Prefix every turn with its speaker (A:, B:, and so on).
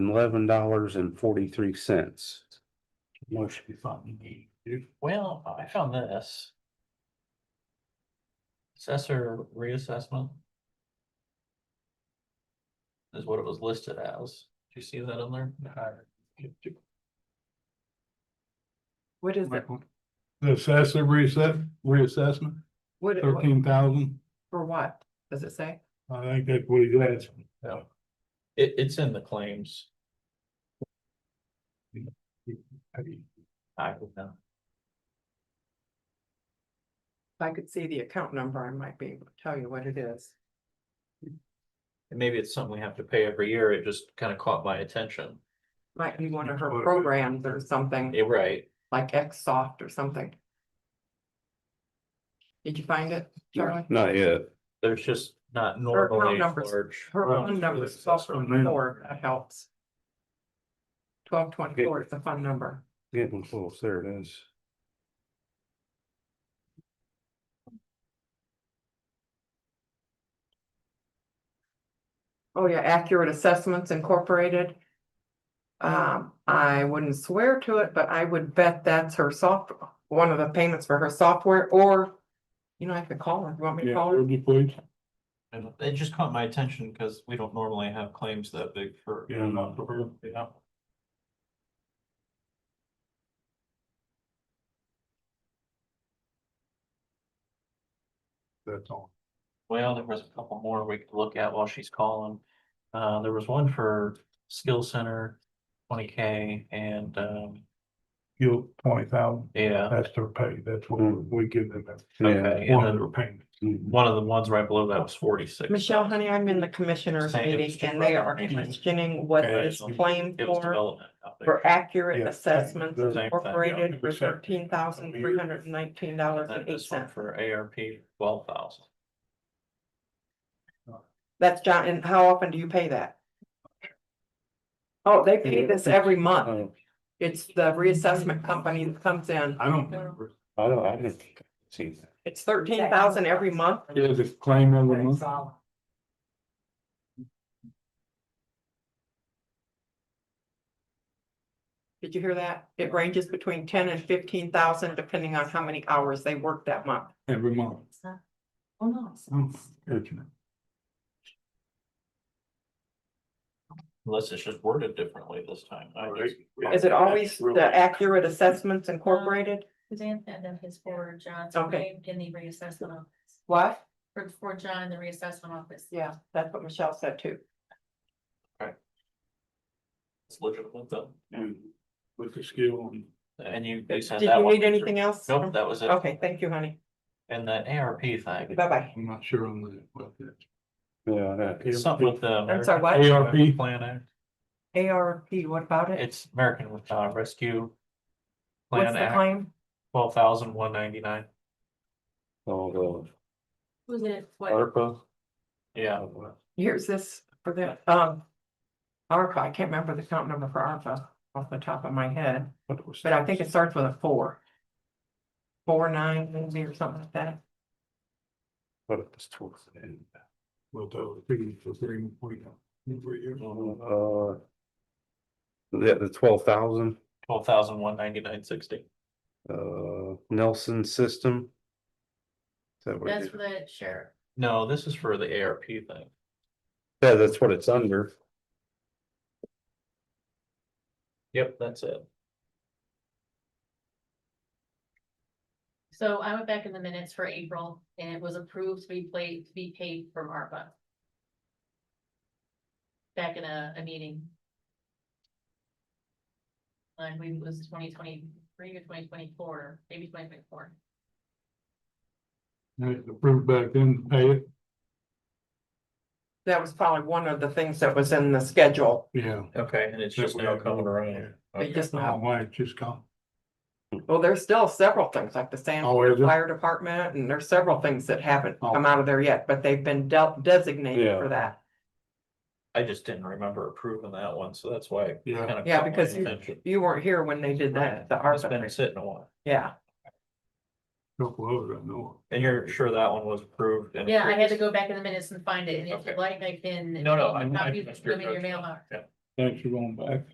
A: eleven dollars and forty-three cents.
B: Motion we thought we need to do. Well, I found this. Assessor reassessment. Is what it was listed as. Do you see that on there?
C: What is it?
D: The assessor reassess, reassessment,
C: What, it- what-
D: thirteen thousand,
C: for what? Does it say?
D: I think that's what he's asking.
B: It, it's in the claims. I don't know.
C: If I could see the account number, I might be able to tell you what it is.
B: And Maybe it's something we have to pay every year. It just kind of caught my attention.
C: Might be one of her
D: Well, it-
C: programs or something,
B: Yeah, right.
C: like Xsoft or something. Did you find it, Charlie?
A: Not yet.
B: There's just not normally
C: numbers.
B: large.
C: Her
D: Well,
C: phone number is
D: it's
C: twelve
D: also new.
C: twenty-four, that helps. Twelve twenty-four is the fun number.
A: Getting close. There it is.
C: Oh, yeah, Accurate Assessments Incorporated. Um, I wouldn't swear to it, but I would bet that's her soft, one of the payments for her software, or. You know, I could call her, you want me to
D: Yeah,
C: call her?
D: would you please?
B: And It just caught my attention because we don't normally have claims that big for.
D: Yeah, not for her.
B: Yeah.
D: That's all.
B: Well, there was a couple more we could look at while she's calling. Uh, there was one for Skill Center, twenty K and, um,
D: You, twenty thousand,
B: yeah.
D: that's their pay, that's what we give them, that's
A: Yeah.
B: Okay,
D: one of
B: and then
D: their payments.
A: Mhm.
B: one of the ones right below that was forty-six.
C: Michelle, honey, I'm in the commissioners
B: Same,
C: meeting
B: it's
C: and they are
B: different.
C: questioning what
D: Okay.
C: is claimed
B: It was
C: for.
B: development. out there.
C: For accurate
D: Yeah.
C: assessments
D: Same
B: thing.
C: incorporated for
D: Yeah, percent.
C: thirteen thousand three hundred and nineteen dollars
B: And
C: and
B: then
C: eight
B: this one
C: cents.
B: for ARP, twelve thousand.
C: That's John, and how often do you pay that? Oh, they pay this every month.
A: Oh,
C: It's the reassessment company that comes in.
D: I don't.
A: I don't, I didn't see that.
C: It's thirteen thousand every month.
D: Yeah, just claim every month.
C: Did you hear that? It ranges between ten and fifteen thousand depending on how many hours they work that month.
D: Every month.
E: Oh, no.
D: Hmm, good.
B: Unless it's just worded differently this time. I
D: All right.
B: guess.
C: Is it always
D: That's real-
C: the accurate assessments incorporated?
E: Suzanne had them his for John's
C: Okay.
E: name in the reassessment office,
C: What?
E: for, for John in the reassessment office.
C: Yeah, that's what Michelle said too.
B: It's legitimate though.
D: and With the skill and.
B: And you, you
C: Did
B: sent that
C: you
B: one.
C: need anything else?
B: Nope, that was it.
C: Okay, thank you, honey.
B: And that ARP thing,
C: Bye-bye.
D: I'm not sure on that, but that.
A: Yeah, that
B: it's something with the.
C: I'm sorry,
B: American
D: what? ARP.
B: Rescue Plan Act.
C: ARP, what about it?
B: It's American uh, Rescue.
C: What's
B: Plan
C: the
B: Act,
C: claim?
B: twelve thousand one ninety-nine,
A: all
E: Was it
A: the
E: what?
A: ARPA.
B: yeah.
A: Oh,
C: Here's this for the, um. ARPA, I can't remember the count number for ARPA off the top of my head,
D: What was
C: but I think it starts with a four. Four, nine, maybe, or something like that.
A: But it was towards the end.
D: Well, the thing for three, we know, for years.
A: Uh. The, the twelve thousand,
B: Twelve thousand one ninety-nine sixty,
A: uh, Nelson system. Is that what it
E: That's
A: is?
E: for the sheriff.
B: no, this is for the ARP thing,
A: Yeah, that's what it's under.
B: yep, that's it.
E: So I went back in the minutes for April and it was approved to be played, to be paid from ARPA. Back in a, a meeting. I believe it was twenty twenty-three or twenty twenty-four, maybe twenty twenty-four.
D: And it's approved back then to pay it,
C: That was probably one of the things that was in the schedule.
D: yeah.
B: Okay, and it's just
D: That we
B: now
D: have
B: coming
D: to-
B: around.
C: They just
D: Oh,
C: now,
D: why it just gone.
C: well, there's still several things like the sand
D: Oh, is it?
C: fire department and there's several things that haven't
D: Oh.
C: come out of there yet, but they've been dealt designated
A: Yeah.
C: for that.
B: I just didn't remember approving that one, so that's why. it
D: Yeah,
B: kinda
C: Yeah,
B: caught my
C: because you-
B: attention.
C: You weren't here when they did that, the
B: It's been
C: ARPA,
B: sitting a while,
C: yeah.
D: couple others I know.
B: and you're sure that one was approved? and
E: Yeah, I had to
B: approved?
E: go back in the minutes and find it, and if
B: Okay.
E: you'd like, I can.
B: No, no, I- I
E: Copy
B: missed
E: them
B: your notes.
E: in your mailbox.
B: Yeah.
D: Thanks for going back.